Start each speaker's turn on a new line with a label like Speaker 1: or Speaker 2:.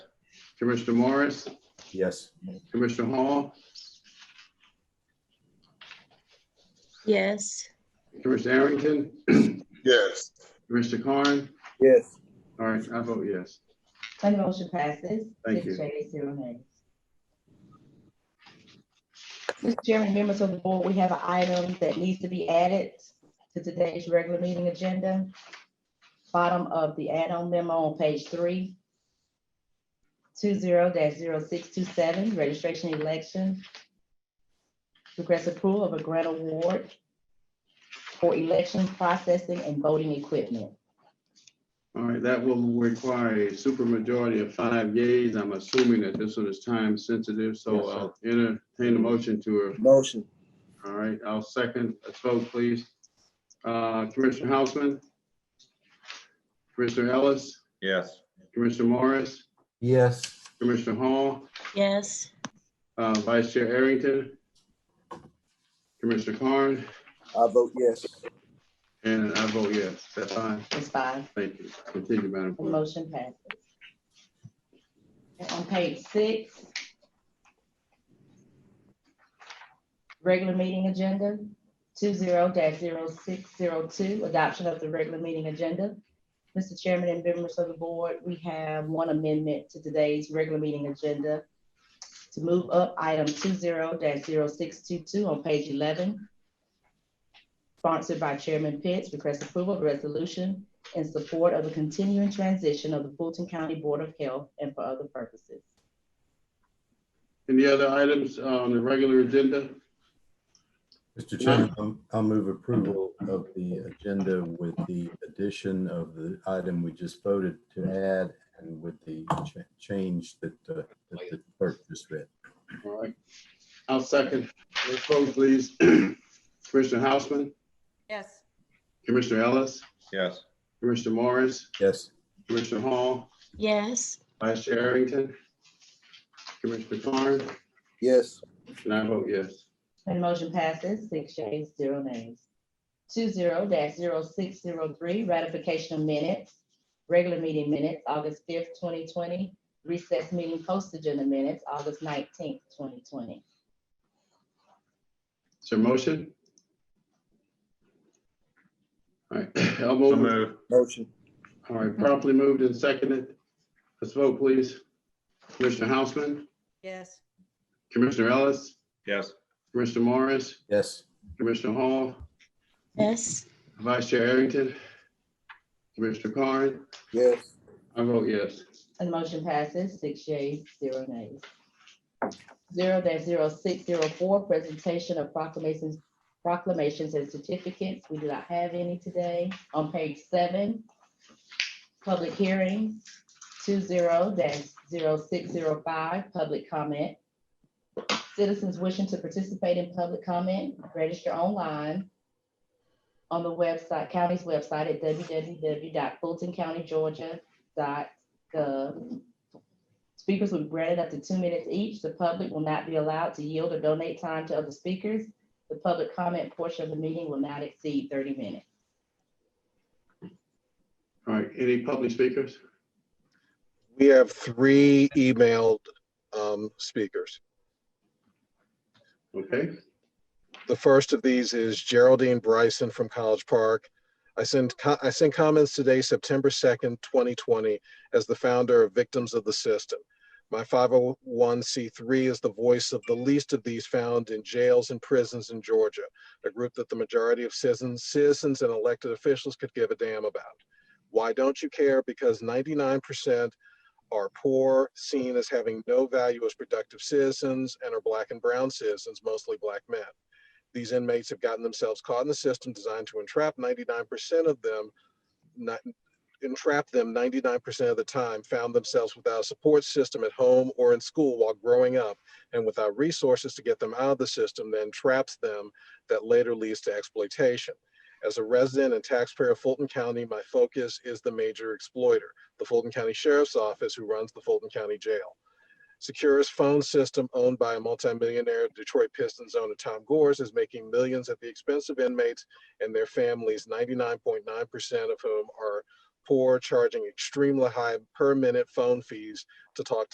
Speaker 1: Commissioner Morris,
Speaker 2: Yes.
Speaker 1: Commissioner Hall,
Speaker 3: yes,
Speaker 1: Commissioner Arrington,
Speaker 4: yes,
Speaker 1: Commissioner Carn.
Speaker 2: Yes.
Speaker 1: All right, I vote yes.
Speaker 5: And the motion passes.
Speaker 1: Thank you.
Speaker 5: Six yeas, zero nays.
Speaker 6: Mr. Chairman, members of the board, we have an item that needs to be added to today's regular meeting agenda. Bottom of the add-on memo on page three. Two zero dash zero six two seven, registration election. Request approval of a grant award for election processing and voting equipment.
Speaker 1: All right, that will require a supermajority of five yeas. I'm assuming that this one is time sensitive,
Speaker 2: Yes,
Speaker 1: so
Speaker 2: sir.
Speaker 1: I'll entertain a motion to,
Speaker 2: Motion.
Speaker 1: all right, I'll second. Let's vote, please. Uh, Commissioner Hausman, Commissioner Ellis,
Speaker 4: yes,
Speaker 1: Commissioner Morris,
Speaker 2: Yes.
Speaker 1: Commissioner Hall,
Speaker 3: yes,
Speaker 1: uh, Vice Chair Arrington, Commissioner Carn,
Speaker 2: I vote yes.
Speaker 1: and I vote yes. That's fine.
Speaker 6: Ms. Five,
Speaker 1: Thank you. Continue, Madam
Speaker 6: the
Speaker 1: Clerk.
Speaker 6: motion passes. And On page six. Regular meeting agenda, two zero dash zero six zero two, adoption of the regular meeting agenda. Mr. Chairman and members of the board, we have one amendment to today's regular meeting agenda. To move up item two zero dash zero six two two on page eleven. Sponsored by Chairman Pitts, request approval of resolution in support of the continuing transition of the Fulton County Board of Health and for other purposes.
Speaker 1: Any other items on the regular agenda?
Speaker 7: Mr. Chairman, I'll- I'll move approval of the agenda with the addition of the item we just voted to add and with the cha- change that uh, that the clerk just read.
Speaker 1: All right. I'll second. Let's vote, please. Commissioner Hausman,
Speaker 8: yes,
Speaker 1: Commissioner Ellis,
Speaker 4: yes,
Speaker 1: Commissioner Morris,
Speaker 7: Yes,
Speaker 1: Commissioner Hall,
Speaker 3: yes,
Speaker 1: Vice Chair Arrington, Commissioner Carn,
Speaker 2: Yes.
Speaker 1: and I vote yes.
Speaker 6: And the motion passes six yeas, zero nays. Two zero dash zero six zero three, ratification of minutes, regular meeting minutes, August fifth, twenty twenty, recess meeting postage in the minutes, August nineteenth, twenty twenty.
Speaker 1: Is there a motion? All right, I'll
Speaker 4: so
Speaker 1: move. it.
Speaker 4: move,
Speaker 2: Motion.
Speaker 1: All right, properly moved and seconded. Let's vote, please. Commissioner Hausman,
Speaker 8: yes,
Speaker 1: Commissioner Ellis,
Speaker 4: yes,
Speaker 1: Commissioner Morris,
Speaker 7: yes,
Speaker 1: Commissioner Hall,
Speaker 3: yes,
Speaker 1: Vice Chair Arrington, Commissioner Carn,
Speaker 2: Yes.
Speaker 1: I vote yes.
Speaker 6: And the motion passes six yeas, zero nays. Zero dash zero six zero four, presentation of proclamations, proclamations and certificates. We do not have any today. On page seven, public hearing, two zero dash zero six zero five, public comment. Citizens wishing to participate in public comment, register online on the website, county's website at www.fultoncountygeorgia.gov gov. uh, Speakers will be granted up to two minutes each. The public will not be allowed to yield or donate time to other speakers. The public comment portion of the meeting will not exceed thirty minutes.
Speaker 1: All right, any public speakers?
Speaker 9: We have three emailed um, speakers.
Speaker 1: Okay,
Speaker 9: The first of these is Geraldine Bryson from College Park. I send, co- I send comments today, September 2nd, 2020, as the founder of Victims of the System. My 501c3 is the voice of the least of these found in jails and prisons in Georgia, a group that the majority of citizens, citizens and elected officials could give a damn about. Why don't you care? Because 99% are poor, seen as having no value as productive citizens, and are black and brown citizens, mostly black men. These inmates have gotten themselves caught in the system designed to entrap 99% of them, not entrap them 99% of the time, found themselves without a support system at home or in school while growing up, and without resources to get them out of the system that entraps them that later leads to exploitation. As a resident and taxpayer of Fulton County, my focus is the major exploiter the Fulton County Sheriff's Office, who runs the Fulton County Jail. Securus phone system owned by a multimillionaire Detroit Pistons owner Tom Gores is making millions at the expense of inmates and their families, 99.9% of whom are poor, charging extremely high per minute phone fees to talk to